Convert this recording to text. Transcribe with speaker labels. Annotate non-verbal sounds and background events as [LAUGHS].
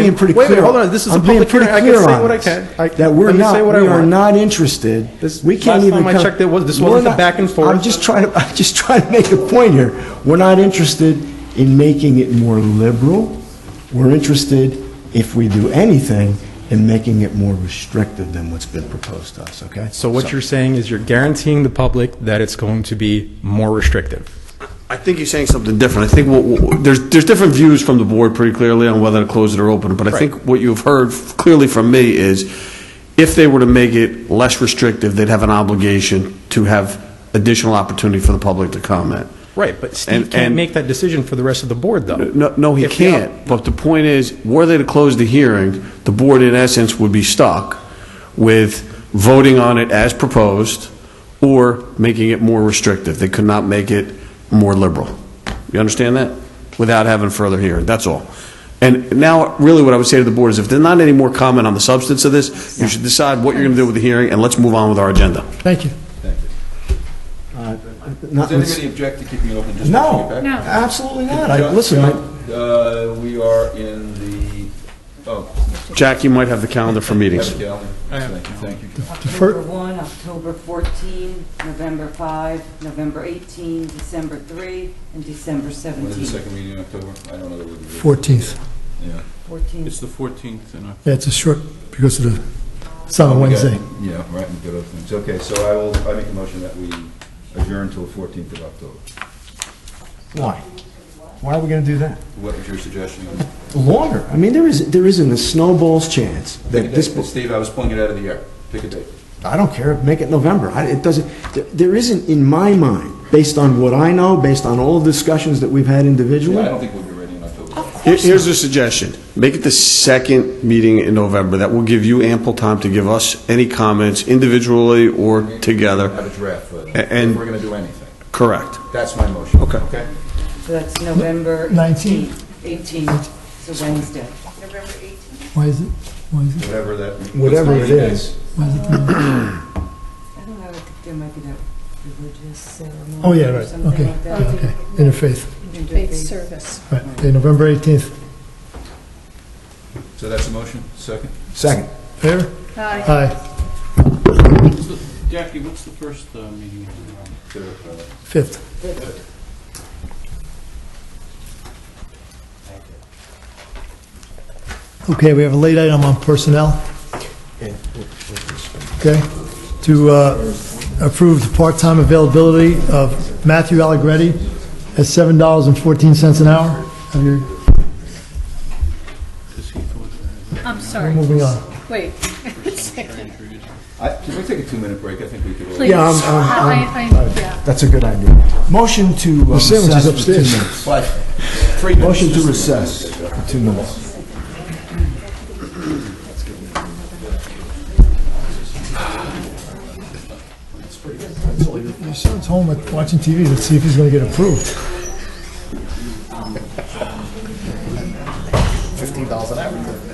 Speaker 1: being pretty
Speaker 2: Wait a
Speaker 1: clear.
Speaker 2: minute, hold on. This is a
Speaker 1: I'm being
Speaker 2: public
Speaker 1: pretty
Speaker 2: hearing. I can
Speaker 1: clear
Speaker 2: say
Speaker 1: on
Speaker 2: what I
Speaker 1: this,
Speaker 2: can. I-
Speaker 1: That we're
Speaker 2: let me say
Speaker 1: not,
Speaker 2: what I
Speaker 1: we are
Speaker 2: want.
Speaker 1: not interested.
Speaker 2: This-
Speaker 1: We can't
Speaker 2: last
Speaker 1: even
Speaker 2: time I
Speaker 1: come-
Speaker 2: checked, there was- this
Speaker 1: We're
Speaker 2: wasn't a
Speaker 1: not-
Speaker 2: back and forth.
Speaker 1: I'm just trying to, [LAUGHS] I'm just trying to make a point here. We're not interested in making it more liberal. We're interested, if we do anything, in making it more restrictive than what's been proposed to us, okay?
Speaker 3: So what you're saying is you're guaranteeing the public that it's going to be more restrictive.
Speaker 4: I think you're saying something different. I think what- what, there's, there's different views from the board pretty clearly on whether to close it or open it, but I think what you've heard f- clearly from me is if they were to make it less restrictive, they'd have an obligation to have additional opportunity for the public to comment.
Speaker 3: Right, but Steve
Speaker 4: And-
Speaker 3: can't
Speaker 4: and-
Speaker 3: make that decision for the rest of the board, though.
Speaker 4: No, no, he
Speaker 3: If they-
Speaker 4: can't, but the point is, were they to close the hearing, the board in essence would be stuck with voting on it as proposed or making it more restrictive. They could not make it more liberal. You understand that? Without having further hearing, that's all. And now, really what I would say to the board is if there's not any more comment on the substance of this, you should decide what you're going to do with the hearing and let's move on with our agenda.
Speaker 1: Thank you. Uh, Not,
Speaker 5: Does anybody object to keeping it open just to
Speaker 1: no,
Speaker 5: bring it back?
Speaker 1: absolutely not. I-
Speaker 5: John-
Speaker 1: Listen, I-
Speaker 5: John, uh, we are in the, oh,
Speaker 4: Jack, you might have the calendar for meetings.
Speaker 5: have a calendar. Thank you, thank you.
Speaker 6: October 1, October 14, November 5, November 18, December 3, and December
Speaker 5: When is the
Speaker 6: 17.
Speaker 5: second meeting in October? I don't know. that we'll be-
Speaker 7: 14th.
Speaker 5: Yeah.
Speaker 6: 14.
Speaker 5: the fourteenth in
Speaker 7: Yeah, it's a short, because of the, it's
Speaker 5: Oh,
Speaker 7: on a Wednesday.
Speaker 5: Yeah, right, we got other things. Okay, so I will, I make a motion that we adjourn till the fourteenth of October.
Speaker 1: why? Why are we going to do that?
Speaker 5: What was your suggestion?
Speaker 1: Longer. I mean, there is, there isn't a snowball's chance that this,
Speaker 5: Steve, I was pulling it out of the air. Pick a date.
Speaker 1: I don't care, make it November. I, it doesn't, there, there isn't, in my mind, based on what I know, based on all the discussions that we've had
Speaker 5: Yeah, I
Speaker 1: individually.
Speaker 5: don't think we'll be ready in October.
Speaker 4: Here- Here's a suggestion. Make it the second meeting in November. That will give you ample time to give us any comments individually or
Speaker 5: Have
Speaker 4: together.
Speaker 5: a draft, for it,
Speaker 4: A- and-
Speaker 5: if we're gonna do anything.
Speaker 4: Correct.
Speaker 5: That's my motion.
Speaker 4: Okay.
Speaker 5: Okay?
Speaker 6: So that's November
Speaker 7: 19.
Speaker 6: 18. 18, it's a Wednesday.
Speaker 7: Why is it, why is it,
Speaker 5: Whatever that. what's the
Speaker 1: Whatever it
Speaker 5: meeting date?
Speaker 1: is.
Speaker 7: why is it?
Speaker 6: I don't know, I think there might be that religious ceremony.
Speaker 7: Oh, yeah,
Speaker 6: or
Speaker 7: right,
Speaker 6: something
Speaker 7: okay,
Speaker 6: like that.
Speaker 7: okay. Interfaith,
Speaker 6: Interfaith.
Speaker 8: service.
Speaker 7: right, okay, November 18th.
Speaker 5: So that's a motion, second?
Speaker 1: Second.
Speaker 7: Fair?
Speaker 8: Hi.
Speaker 7: Aye,
Speaker 9: Jackie, what's the first uh, meeting? in, um,
Speaker 5: Third, uh,
Speaker 7: 5th. Okay, we have a late item on personnel. Okay, to uh, approve the part-time availability of Matthew Allegretti at $7.14 an hour. Have your-
Speaker 8: I'm sorry.
Speaker 7: Moving on.
Speaker 8: Wait. [LAUGHS] Please.
Speaker 5: I- Can we take a two-minute break? I think we could. all-
Speaker 1: Yeah, I'm- I'm-
Speaker 8: I- I- I- yeah.
Speaker 1: That's a good idea. Motion to uh,
Speaker 7: sandwich
Speaker 1: recess
Speaker 7: is
Speaker 1: for two
Speaker 7: upstairs.
Speaker 1: minutes.
Speaker 5: Flash. Three minutes.
Speaker 1: Motion to recess for two minutes.
Speaker 7: Your son's home at- watching TV, let's see if he's going to get approved.
Speaker 1: $15 an hour.